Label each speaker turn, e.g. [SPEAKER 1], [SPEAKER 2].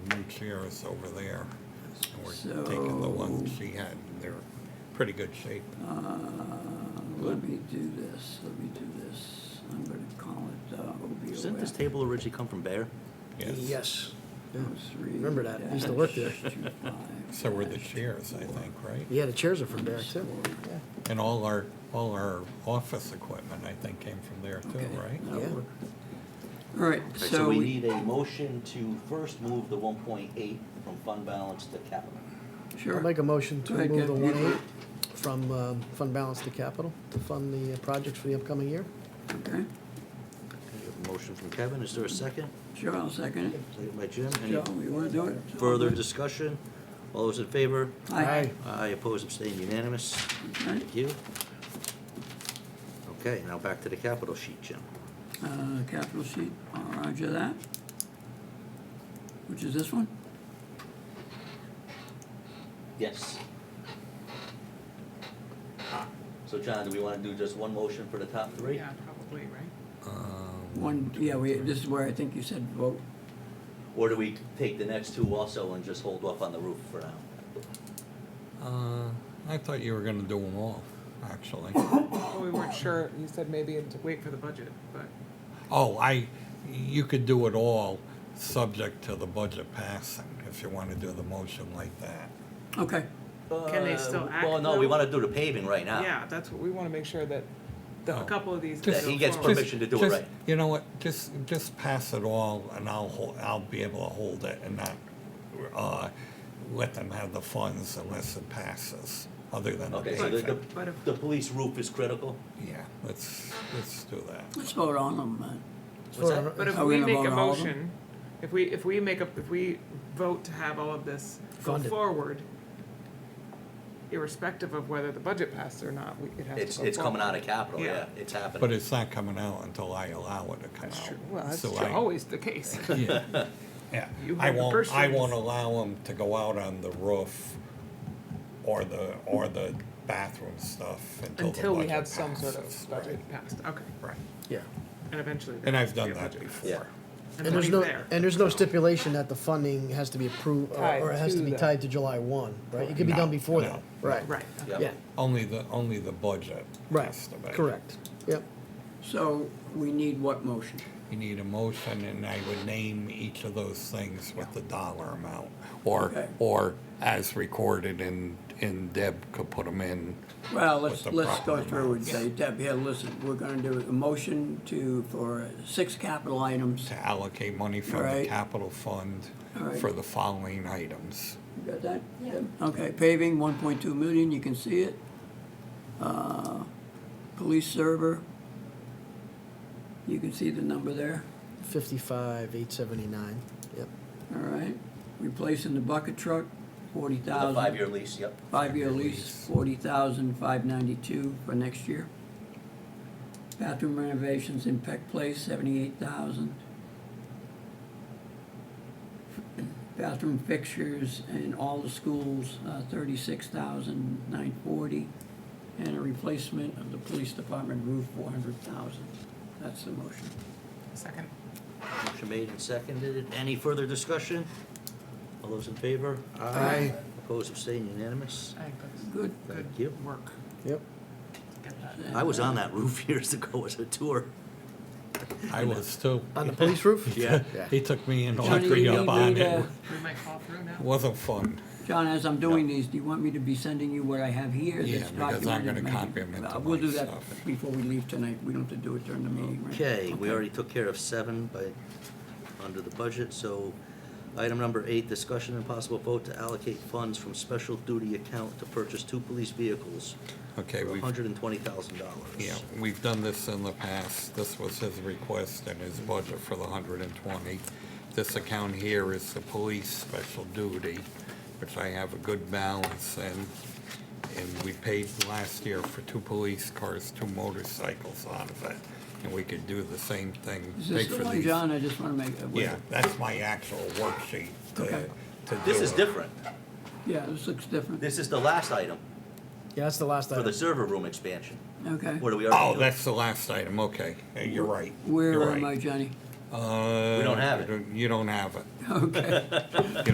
[SPEAKER 1] one Sierra's over there. And we're taking the one
[SPEAKER 2] So-
[SPEAKER 1] she had. They're pretty good shape.
[SPEAKER 2] Uh, Let me do this, let me do this. I'm gonna call it uh, OBOF.
[SPEAKER 3] Didn't this table originally come from Bayer?
[SPEAKER 1] Yes.
[SPEAKER 4] Yes. Yeah.
[SPEAKER 2] 03
[SPEAKER 4] Remember that. I used to work there.
[SPEAKER 2] dash 25
[SPEAKER 1] So were the
[SPEAKER 2] dash
[SPEAKER 1] chairs, I think, right?
[SPEAKER 4] Yeah, the chairs are from there too. Yeah.
[SPEAKER 1] And all our, all our office equipment, I think, came from there too,
[SPEAKER 2] Okay.
[SPEAKER 1] right?
[SPEAKER 2] That'll
[SPEAKER 4] Yeah.
[SPEAKER 2] work. All right,
[SPEAKER 3] So we
[SPEAKER 2] so,
[SPEAKER 3] need a motion to first move the one point eight from fund balance to capital.
[SPEAKER 2] sure.
[SPEAKER 4] I'll make a motion to
[SPEAKER 2] Go ahead,
[SPEAKER 4] move the
[SPEAKER 2] Ken.
[SPEAKER 4] one eight from um, fund balance to capital to fund the uh, projects for the upcoming year.
[SPEAKER 2] Okay,
[SPEAKER 3] We have a Motion from Kevin, is there a second?
[SPEAKER 2] sure, I'll second it.
[SPEAKER 3] Second by Jim, any
[SPEAKER 2] Joe, you wanna do it?
[SPEAKER 3] further discussion? All those in favor?
[SPEAKER 2] Aye.
[SPEAKER 3] Aye, opposed, abstained, unanimous.
[SPEAKER 2] Okay.
[SPEAKER 3] Thank you. Okay, now back to the capital sheet, Jim.
[SPEAKER 2] Uh, capital sheet, uh, roger that. Which is this one?
[SPEAKER 3] Yes. So John, do we wanna do just one motion for the top three?
[SPEAKER 5] Yeah, probably, right?
[SPEAKER 1] Uh,
[SPEAKER 2] One, yeah, we, this is where I think you said vote.
[SPEAKER 3] Or do we take the next two also and just hold off on the roof for now?
[SPEAKER 1] Uh, I thought you were gonna do them all, actually.
[SPEAKER 5] Well, we weren't sure, you said maybe to wait for the budget, but
[SPEAKER 1] Oh, I, you could do it all, subject to the budget passing, if you wanna do the motion like that.
[SPEAKER 2] Okay,
[SPEAKER 5] Can they still act,
[SPEAKER 3] Uh, Well, no, we
[SPEAKER 5] though?
[SPEAKER 3] wanna do the paving right now.
[SPEAKER 5] yeah, that's what, we wanna make sure that the,
[SPEAKER 1] Oh.
[SPEAKER 5] a couple of these.
[SPEAKER 1] That
[SPEAKER 5] can go
[SPEAKER 3] he gets
[SPEAKER 5] forward.
[SPEAKER 3] permission to do it
[SPEAKER 1] Just-
[SPEAKER 3] right.
[SPEAKER 1] You know what, just, just pass it all, and I'll hold, I'll be able to hold it and not, uh, let them have the funds unless it passes, other than the
[SPEAKER 3] Okay, so the,
[SPEAKER 1] paycheck.
[SPEAKER 5] But
[SPEAKER 3] the,
[SPEAKER 5] if-
[SPEAKER 3] the police roof is critical?
[SPEAKER 1] Yeah, let's, let's do that.
[SPEAKER 2] let's vote on them, man.
[SPEAKER 3] What's that?
[SPEAKER 4] Vote on-
[SPEAKER 5] But if
[SPEAKER 2] Are we
[SPEAKER 5] we
[SPEAKER 2] gonna
[SPEAKER 5] make a
[SPEAKER 2] vote on all of them?
[SPEAKER 5] motion, if we, if we make a, if we vote to have all of this go
[SPEAKER 4] Funded.
[SPEAKER 5] forward, irrespective of whether the budget passed or not, we, it has to go
[SPEAKER 3] It's, it's coming out
[SPEAKER 5] forward.
[SPEAKER 3] of capital, yeah,
[SPEAKER 5] Yeah.
[SPEAKER 3] it's
[SPEAKER 1] But
[SPEAKER 3] happening.
[SPEAKER 1] it's not coming out until I allow it to come out.
[SPEAKER 5] That's true, well, that's
[SPEAKER 1] So
[SPEAKER 5] true,
[SPEAKER 1] I-
[SPEAKER 5] always the case.
[SPEAKER 1] Yeah, yeah.
[SPEAKER 5] You
[SPEAKER 1] I
[SPEAKER 5] have the
[SPEAKER 1] won't, I
[SPEAKER 5] person.
[SPEAKER 1] won't allow them to go out on the roof or the, or the bathroom stuff until the
[SPEAKER 5] Until we
[SPEAKER 1] budget
[SPEAKER 5] have some sort
[SPEAKER 1] passes.
[SPEAKER 5] of budget passed, okay,
[SPEAKER 1] Right, right.
[SPEAKER 4] Yeah.
[SPEAKER 5] and eventually. there
[SPEAKER 1] And
[SPEAKER 5] has
[SPEAKER 1] I've
[SPEAKER 5] to be
[SPEAKER 1] done
[SPEAKER 5] a
[SPEAKER 1] that
[SPEAKER 5] budget.
[SPEAKER 1] before.
[SPEAKER 5] And
[SPEAKER 4] And there's
[SPEAKER 5] money's
[SPEAKER 4] no,
[SPEAKER 5] there.
[SPEAKER 4] and there's no stipulation that the funding has to be approved or
[SPEAKER 5] Tied
[SPEAKER 4] or it has to
[SPEAKER 5] to
[SPEAKER 4] be
[SPEAKER 5] the-
[SPEAKER 4] tied to July one, right? It could be
[SPEAKER 1] No,
[SPEAKER 4] done before
[SPEAKER 1] no,
[SPEAKER 4] that,
[SPEAKER 1] no.
[SPEAKER 4] right?
[SPEAKER 5] Right, okay.
[SPEAKER 3] Yep.
[SPEAKER 4] Yeah,
[SPEAKER 1] Only the, only the budget has
[SPEAKER 4] right,
[SPEAKER 1] to be.
[SPEAKER 4] correct, yep.
[SPEAKER 2] So we need what motion?
[SPEAKER 1] You need a motion and I would name each of those things with the dollar amount. Or,
[SPEAKER 2] Okay.
[SPEAKER 1] or as recorded and, and Deb could put them in.
[SPEAKER 2] Well, let's,
[SPEAKER 1] the
[SPEAKER 2] let's go
[SPEAKER 1] proper
[SPEAKER 2] through and
[SPEAKER 1] amounts.
[SPEAKER 2] say, Deb, here, listen, we're gonna do a motion to, for six capital items.
[SPEAKER 1] to allocate money from the
[SPEAKER 2] Right.
[SPEAKER 1] capital fund
[SPEAKER 2] Alright.
[SPEAKER 1] for the following items.
[SPEAKER 2] You Got that? Okay, paving, one point two million, you can see it. Uh, Police server, you can see the number there,
[SPEAKER 4] Fifty-five, eight seventy-nine, yep.
[SPEAKER 2] all right? Replacing the bucket truck, forty
[SPEAKER 3] The
[SPEAKER 2] thousand.
[SPEAKER 3] five-year lease, yep.
[SPEAKER 2] Five-year lease, forty thousand, five ninety-two for next year. Bathroom renovations in Peck Place, seventy-eight thousand. Bathroom fixtures in all the schools, uh, thirty-six thousand, nine forty. And a replacement of the police department roof, four hundred thousand. That's the motion.
[SPEAKER 5] Second.
[SPEAKER 3] Motion made and seconded, any further discussion? All those in favor?
[SPEAKER 4] Aye.
[SPEAKER 3] Opposed, abstained, unanimous?
[SPEAKER 5] I think that's
[SPEAKER 2] Good.
[SPEAKER 3] Thank you.
[SPEAKER 5] Work.
[SPEAKER 4] Yep.
[SPEAKER 5] Get that.
[SPEAKER 3] I was on that roof years ago as a tour.
[SPEAKER 1] I was too.
[SPEAKER 4] On the police roof?
[SPEAKER 3] Yeah.
[SPEAKER 4] Yeah.
[SPEAKER 1] He took me and
[SPEAKER 2] Johnny,
[SPEAKER 1] Audrey
[SPEAKER 2] you
[SPEAKER 1] up on
[SPEAKER 2] need, uh,
[SPEAKER 1] it.
[SPEAKER 5] We might fall through now.
[SPEAKER 1] Wasn't fun.
[SPEAKER 2] John, as I'm doing these, do you want me to be sending you what I have here?
[SPEAKER 1] Yeah,
[SPEAKER 2] that's
[SPEAKER 1] because I'm
[SPEAKER 2] documented?
[SPEAKER 1] gonna
[SPEAKER 2] Maybe-
[SPEAKER 1] copy 'em into
[SPEAKER 2] Uh, We'll do
[SPEAKER 1] my
[SPEAKER 2] that
[SPEAKER 1] stuff.
[SPEAKER 2] before we leave tonight. We don't have to do it during the meeting, right?
[SPEAKER 3] Okay, we already took care of seven by, under the budget, so item number eight, discussion and possible vote to allocate funds from special duty account to purchase two police vehicles
[SPEAKER 1] Okay,
[SPEAKER 3] for
[SPEAKER 1] we've,
[SPEAKER 3] hundred and twenty thousand dollars.
[SPEAKER 1] yeah, we've done this in the past. This was his request and his budget for the hundred and twenty. This account here is the police special duty, which I have a good balance in. And we paid last year for two police cars, two motorcycles out of it. And we could do the same thing.
[SPEAKER 2] Is
[SPEAKER 1] pay
[SPEAKER 2] this
[SPEAKER 1] for
[SPEAKER 2] the one,
[SPEAKER 1] these.
[SPEAKER 2] John? I just want to make. uh, wait.
[SPEAKER 1] Yeah, that's my actual worksheet to,
[SPEAKER 2] Okay.
[SPEAKER 1] to do.
[SPEAKER 3] This is
[SPEAKER 1] it.
[SPEAKER 3] different.
[SPEAKER 2] Yeah, this looks different.
[SPEAKER 3] This is the last item
[SPEAKER 4] Yeah, that's the last
[SPEAKER 3] for the
[SPEAKER 4] item.
[SPEAKER 3] server room expansion.
[SPEAKER 2] Okay.
[SPEAKER 3] What do we already
[SPEAKER 1] Oh,
[SPEAKER 3] do?
[SPEAKER 1] that's the last item, okay. Yeah, You're right.
[SPEAKER 2] Where
[SPEAKER 1] You're
[SPEAKER 2] am I,
[SPEAKER 1] right.
[SPEAKER 2] Johnny?
[SPEAKER 1] Uh,
[SPEAKER 3] We don't have it.
[SPEAKER 1] You don't have it.
[SPEAKER 2] Okay.